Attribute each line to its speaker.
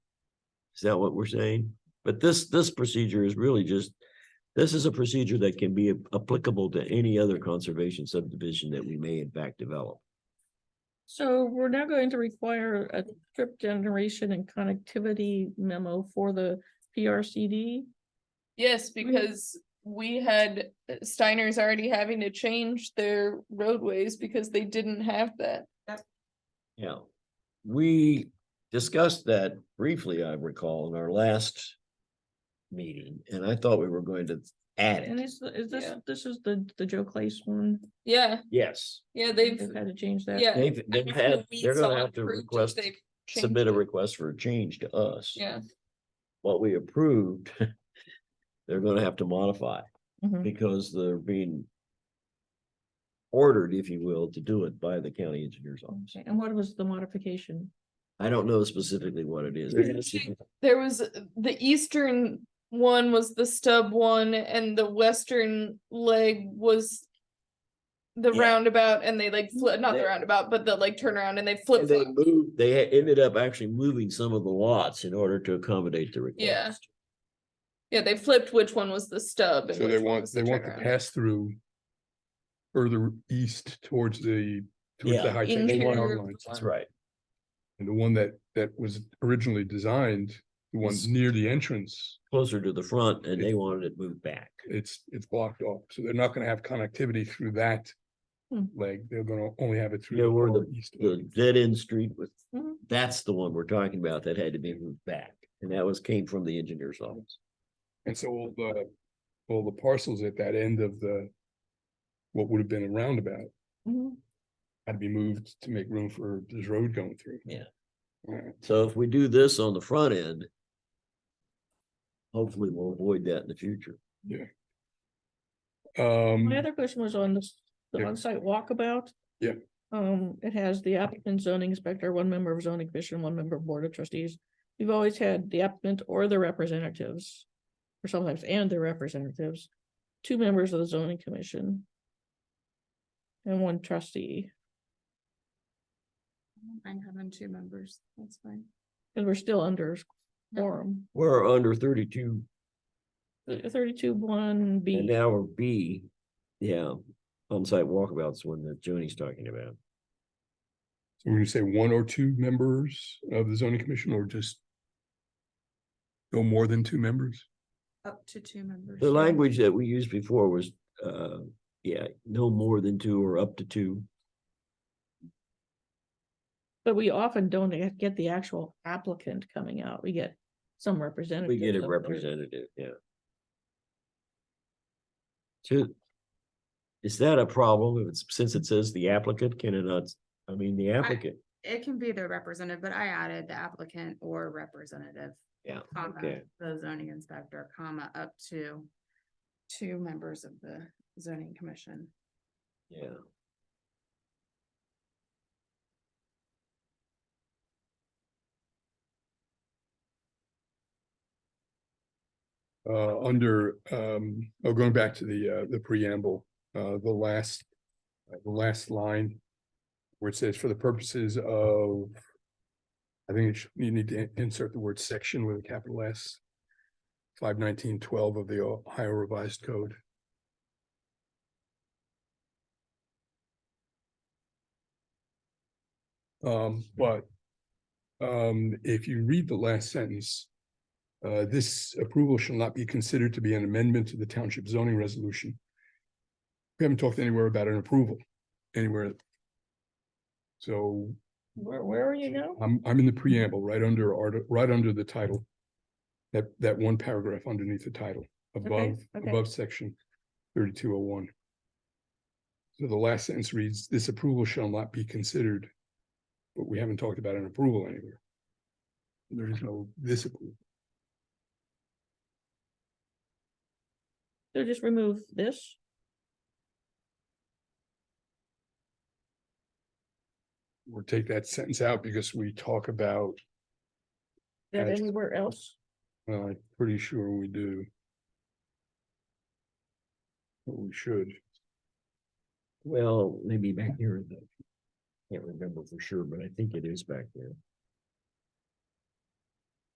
Speaker 1: Is that what we're saying? But this, this procedure is really just, this is a procedure that can be applicable to any other conservation subdivision that we may in fact develop.
Speaker 2: So we're now going to require a trip generation and connectivity memo for the PRCD.
Speaker 3: Yes, because we had uh, Steiner's already having to change their roadways because they didn't have that.
Speaker 1: Yeah. We discussed that briefly, I recall, in our last meeting, and I thought we were going to add
Speaker 2: And
Speaker 1: it.
Speaker 2: is, is this,
Speaker 3: Yeah.
Speaker 2: this is the, the Joe Clace one?
Speaker 3: Yeah,
Speaker 1: Yes,
Speaker 3: yeah, they've.
Speaker 2: They've Had to change that.
Speaker 3: Yeah.
Speaker 1: they've, they've
Speaker 3: I
Speaker 1: had,
Speaker 3: know we
Speaker 1: they're
Speaker 3: saw
Speaker 1: gonna have to
Speaker 3: approved it,
Speaker 1: request,
Speaker 3: they've changed
Speaker 1: submit a
Speaker 3: it.
Speaker 1: request for a change to us.
Speaker 3: Yeah,
Speaker 1: What we approved, they're gonna have to modify.
Speaker 2: Mhm.
Speaker 1: because they're being ordered, if you will, to do it by the county engineer's office.
Speaker 2: Okay, And what was the modification?
Speaker 1: I don't know specifically what it is.
Speaker 3: Interesting. there was the eastern one was the stub one and the western leg was. The
Speaker 1: Yeah.
Speaker 3: roundabout and they like, fli- not the
Speaker 1: They-
Speaker 3: roundabout, but the like turnaround and they flip.
Speaker 1: And They moved, they had- ended up actually moving some of the lots in order to accommodate the
Speaker 3: Yeah.
Speaker 1: request.
Speaker 3: Yeah, they flipped which one was the stub. and
Speaker 4: So they
Speaker 3: which one
Speaker 4: want,
Speaker 3: was
Speaker 4: they want the
Speaker 3: turnaround.
Speaker 4: pass through further east towards the, towards
Speaker 1: Yeah.
Speaker 4: the high tension
Speaker 3: Interior
Speaker 4: power
Speaker 3: of the
Speaker 4: lines.
Speaker 3: line.
Speaker 1: That's right.
Speaker 4: And the one that, that was originally designed, the one
Speaker 1: Is-
Speaker 4: near the entrance,
Speaker 1: Closer to the front and they wanted it moved back.
Speaker 4: it's, it's blocked off. So they're not gonna have connectivity through that
Speaker 2: Hmm.
Speaker 4: leg. They're gonna only have it through.
Speaker 1: Yeah, where
Speaker 4: far east
Speaker 1: The
Speaker 4: leg.
Speaker 1: dead end street was,
Speaker 2: Mhm.
Speaker 1: that's the one we're talking about that had to be moved back. And that was, came from the engineer's office.
Speaker 4: And so all the, all the parcels at that end of the, what would have been a roundabout
Speaker 2: Mhm.
Speaker 4: had to be moved to make room for this road going through.
Speaker 1: Yeah.
Speaker 4: Alright.
Speaker 1: So if we do this on the front end, hopefully we'll avoid that in the future.
Speaker 4: Um,
Speaker 2: My other question was on this, the
Speaker 4: Mm. Yeah.
Speaker 2: on-site walkabout.
Speaker 4: Yeah.
Speaker 2: Um, it has the applicant zoning inspector, one member of zoning commission, one member of board of trustees. We've always had the applicant or their representatives, or sometimes and their representatives, two members of the zoning commission. And one trustee,
Speaker 3: I'm having two members, that's fine.
Speaker 2: and we're still under
Speaker 3: No.
Speaker 2: quorum,
Speaker 1: We're under thirty-two
Speaker 2: thirty-two one
Speaker 1: and
Speaker 2: B.
Speaker 1: now we're B, yeah, on-site walkabouts one that Joni's talking about.
Speaker 4: So we're gonna say one or two members of the zoning commission or just no more than two members?
Speaker 3: Up to two members.
Speaker 1: The language that we used before was, uh, yeah, no more than two or up to two.
Speaker 2: But we often don't get- get the actual applicant coming out, we get some representative.
Speaker 1: We get a representative, yeah. To, is that a problem? If it's, since it says the applicant, can it not, I mean, the applicant,
Speaker 5: It can be the representative, but I added the applicant or representative,
Speaker 1: yeah,
Speaker 5: comma,
Speaker 1: okay.
Speaker 5: the zoning inspector, comma, up to two members of the zoning commission.
Speaker 1: Yeah.
Speaker 4: Uh, under, um, oh, going back to the, uh, the preamble, uh, the last, uh, the last line where it says for the purposes of, I think it should- you need to insert the word section with a capital S. Five nineteen twelve of the Ohio Revised Code. Um, but um, if you read the last sentence, uh, this approval shall not be considered to be an amendment to the township zoning resolution. We haven't talked anywhere about an approval, anywhere. So
Speaker 2: Where, where are you now?
Speaker 4: I'm, I'm in the preamble, right under, art- right under the title. That, that one paragraph underneath the title, above,
Speaker 2: okay.
Speaker 4: above section thirty-two oh one. So the last sentence reads, this approval shall not be considered. But we haven't talked about an approval anywhere. There is no this approval.
Speaker 2: So just remove this,
Speaker 4: or take that sentence out because we talk about,
Speaker 2: Is that
Speaker 4: Gotcha.
Speaker 2: anywhere else?
Speaker 4: well, I'm pretty sure we do. But we should,
Speaker 1: Well, maybe back here, in the- can't remember for sure, but I think it is back there.